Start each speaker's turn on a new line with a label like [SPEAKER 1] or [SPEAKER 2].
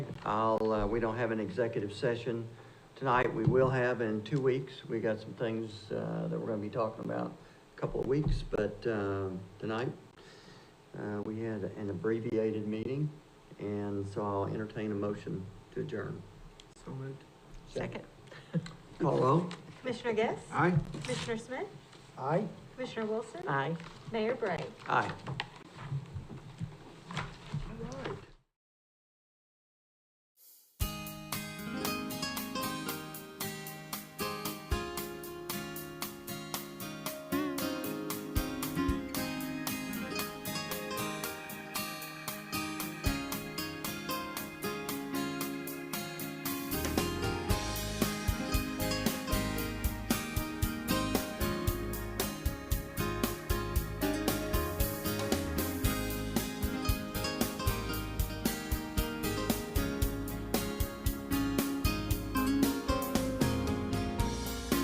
[SPEAKER 1] I'll, uh, we don't have an executive session tonight. We will have in two weeks. We got some things, uh, that we're gonna be talking about a couple of weeks, but, um, tonight, uh, we had an abbreviated meeting, and so I'll entertain a motion to adjourn.
[SPEAKER 2] So moved.
[SPEAKER 3] Second.
[SPEAKER 1] Call roll.
[SPEAKER 3] Commissioner Guess?
[SPEAKER 2] Aye.
[SPEAKER 3] Commissioner Smith?
[SPEAKER 1] Aye.
[SPEAKER 3] Commissioner Wilson?
[SPEAKER 4] Aye.
[SPEAKER 3] Mayor Bray?
[SPEAKER 1] Aye.